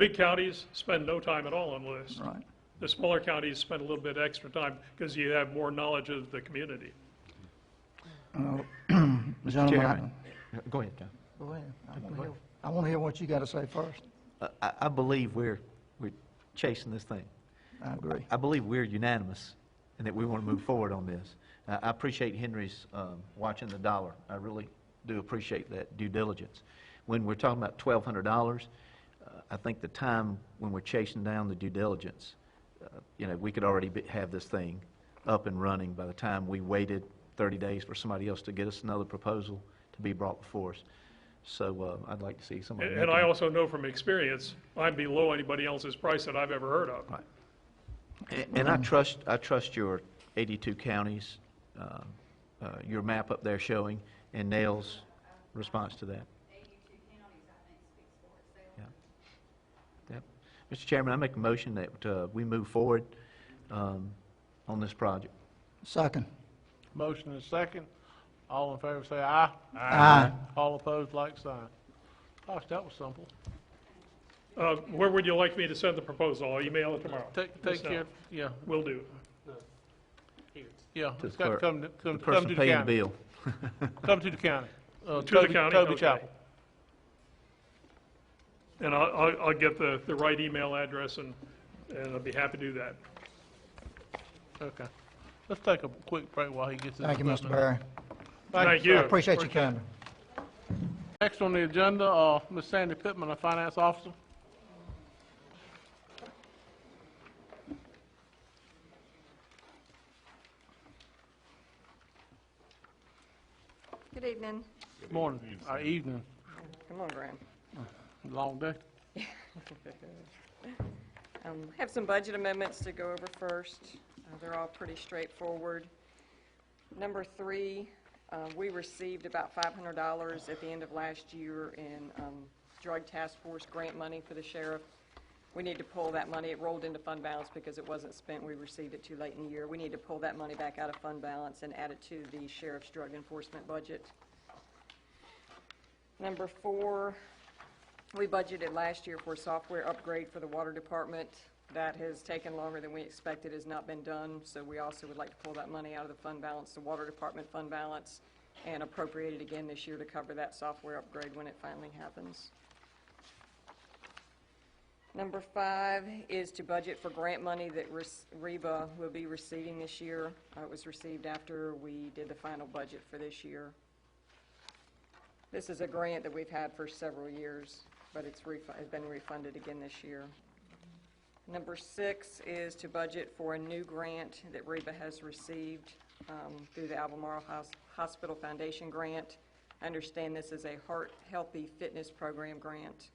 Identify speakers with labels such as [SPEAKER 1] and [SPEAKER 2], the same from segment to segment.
[SPEAKER 1] Big counties spend no time at all on lists.
[SPEAKER 2] right?
[SPEAKER 1] The smaller counties spend a little bit extra time because you have more knowledge of the community.
[SPEAKER 2] Uh, Gentlemen, I-
[SPEAKER 3] Chairman. Go ahead, John.
[SPEAKER 2] go ahead. I wanna hear- I want to hear what you got to say first.
[SPEAKER 3] Uh, I, I believe we're, we're chasing this thing.
[SPEAKER 2] I agree.
[SPEAKER 3] I believe we're unanimous and that we want to move forward on this. I I appreciate Henry's um, watching the dollar. I really do appreciate that due diligence. When we're talking about $1,200, uh, I think the time when we're chasing down the due diligence, uh, you know, we could already be- have this thing up and running by the time we waited 30 days for somebody else to get us another proposal to be brought before us. So uh, I'd like to see somebody.
[SPEAKER 1] And
[SPEAKER 3] make
[SPEAKER 1] and I
[SPEAKER 3] a-
[SPEAKER 1] also know from experience, I'm below anybody else's price that I've ever heard of.
[SPEAKER 3] Right. A- And I trust, I trust your 82 counties, um, uh, your map up there showing, and Nell's response to that. 82 counties, I think, speaks for itself. Mr. Chairman, I make a motion that uh, we move forward um, on this project.
[SPEAKER 2] Second.
[SPEAKER 4] Motion is second. All in favor say aye.
[SPEAKER 2] Aye.
[SPEAKER 4] All opposed, like sign. Gosh, that was simple.
[SPEAKER 1] Uh, Where would you like me to send the proposal? I'll email it tomorrow.
[SPEAKER 4] Take,
[SPEAKER 1] Yes,
[SPEAKER 4] take
[SPEAKER 1] sir.
[SPEAKER 4] care, yeah,
[SPEAKER 1] Will do.
[SPEAKER 4] yeah.
[SPEAKER 3] To
[SPEAKER 4] It's
[SPEAKER 3] the
[SPEAKER 4] got to
[SPEAKER 3] clerk.
[SPEAKER 4] come, to-
[SPEAKER 3] The
[SPEAKER 4] come come
[SPEAKER 3] person
[SPEAKER 4] to the
[SPEAKER 3] paying the
[SPEAKER 4] county.
[SPEAKER 3] bill.
[SPEAKER 4] Come to the county. Uh,
[SPEAKER 1] To the
[SPEAKER 4] Toby-
[SPEAKER 1] county,
[SPEAKER 4] Toby
[SPEAKER 1] okay.
[SPEAKER 4] Chapel.
[SPEAKER 1] And I'll- I'll, I'll get the, the right email address and, and I'll be happy to do that.
[SPEAKER 4] Okay. Let's take a quick break while he gets his
[SPEAKER 2] Thank you,
[SPEAKER 4] equipment.
[SPEAKER 2] Mr. Barry.
[SPEAKER 1] Thank
[SPEAKER 2] I
[SPEAKER 1] you.
[SPEAKER 2] appreciate you coming.
[SPEAKER 4] Next on the agenda, uh, Ms. Sandy Pittman, our finance officer.
[SPEAKER 5] Good evening.
[SPEAKER 4] Morning, or evening,
[SPEAKER 5] Come on, Graham.
[SPEAKER 4] long day.
[SPEAKER 5] Um, Have some budget amendments to go over first. Uh, They're all pretty straightforward. Number three, uh, we received about $500 at the end of last year in um, Drug Task Force grant money for the sheriff. We need to pull that money, it rolled into fund balance because it wasn't spent, we received it too late in the year. We need to pull that money back out of fund balance and add it to the sheriff's drug enforcement budget. Number four, We budgeted last year for a software upgrade for the water department. That has taken longer than we expected, has not been done, so we also would like to pull that money out of the fund balance, the water department fund balance, and appropriate it again this year to cover that software upgrade when it finally happens. Number five is to budget for grant money that res- Reba will be receiving this year. Uh, It was received after we did the final budget for this year. This is a grant that we've had for several years, but it's refu- has been refunded again this year. Number six is to budget for a new grant that Reba has received um, through the Albemarle Hos- Hospital Foundation Grant. I understand this is a Heart Healthy Fitness Program grant.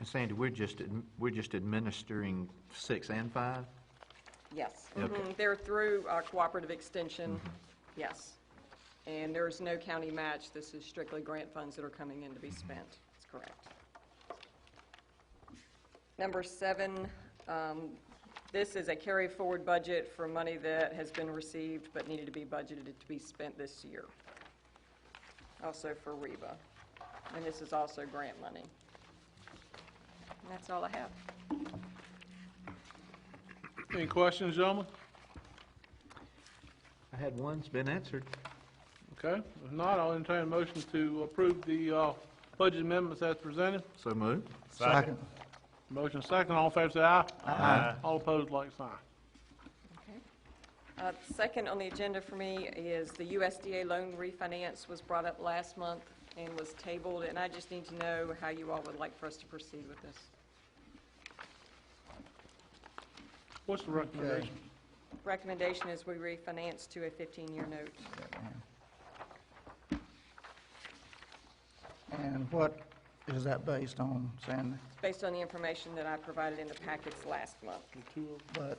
[SPEAKER 3] And Sandy, we're just, adm- we're just administering six and five?
[SPEAKER 5] Yes.
[SPEAKER 3] Okay.
[SPEAKER 5] Mhm. They're through uh, Cooperative Extension, yes. And there is no county match, this is strictly grant funds that are coming in to be spent, that's correct. Number seven, um, this is a carry-forward budget for money that has been received but needed to be budgeted to be spent this year, also for REBA. And this is also grant money. And that's all I have.
[SPEAKER 4] Any questions, gentlemen?
[SPEAKER 3] I had one, it's been answered.
[SPEAKER 4] Okay, if not, I'll entertain a motion to approve the, uh, budget amendments as presented.
[SPEAKER 3] So moved.
[SPEAKER 2] Second.
[SPEAKER 4] Motion second, all in favor say aye. Aye. All opposed, like sign.
[SPEAKER 5] Uh, Second on the agenda for me is the USDA loan refinance was brought up last month and was tabled, and I just need to know how you all would like for us to proceed with this.
[SPEAKER 4] What's the recommendation?
[SPEAKER 5] Recommendation is we refinance to a 15-year note.
[SPEAKER 2] And what is that based on, Sandy?
[SPEAKER 5] It's based on the information that I provided in the packets last month.
[SPEAKER 4] Two of
[SPEAKER 2] But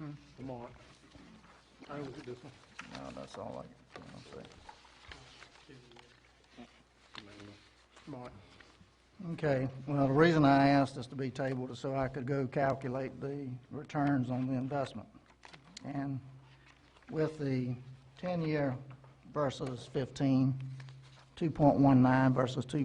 [SPEAKER 4] them are. I look at this one.
[SPEAKER 2] No, that's all I can say.
[SPEAKER 4] Mark.
[SPEAKER 2] Okay, well, the reason I asked this to be tabled is so I could go calculate the returns on the investment. And with the 10-year versus 15, 2.19 versus 2.